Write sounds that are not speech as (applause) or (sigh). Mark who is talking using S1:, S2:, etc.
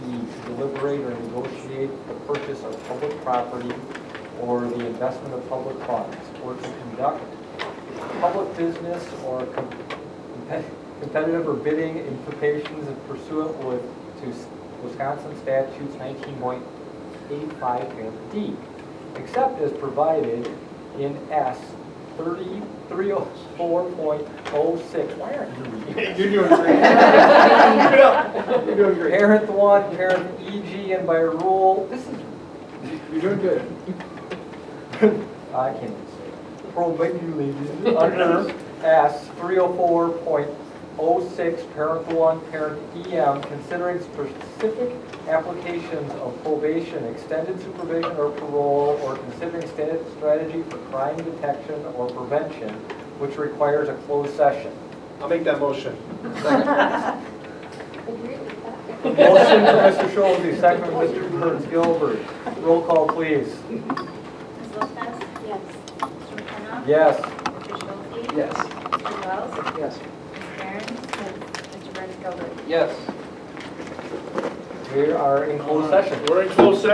S1: deliberate or negotiate the purchase of public property or the investment of public funds, or to conduct public business or com- compet- competitive or bidding implications in pursuant with, to Wisconsin statutes nineteen point eight five parent D, except as provided in S thirty, three oh four point oh six. Why aren't you reading?
S2: You're doing great. You're doing great.
S1: Parent one, parent EG, and by rule, this is,
S2: You're doing good.
S1: I can't even say it. Prohibited under S three oh four point oh six, parent one, parent EM, considering specific applications of probation, extended supervision or parole, or considering sta- strategy for crime detection or prevention, which requires a closed session.
S2: I'll make that motion.
S3: Agree with that.
S1: (laughs) Motion from Mr. Schulze, second from Mr. Burns Gilbert. Roll call, please.
S4: Ms. Lopez?
S3: Yes.
S4: Mr. McKenna?
S1: Yes.
S4: Mr. Schulte?
S2: Yes.
S4: Mr. Wells?
S2: Yes.
S4: Ms. Barron? Mr. Burns Gilbert?
S1: Yes. We are in closed session.
S2: We're in closed session.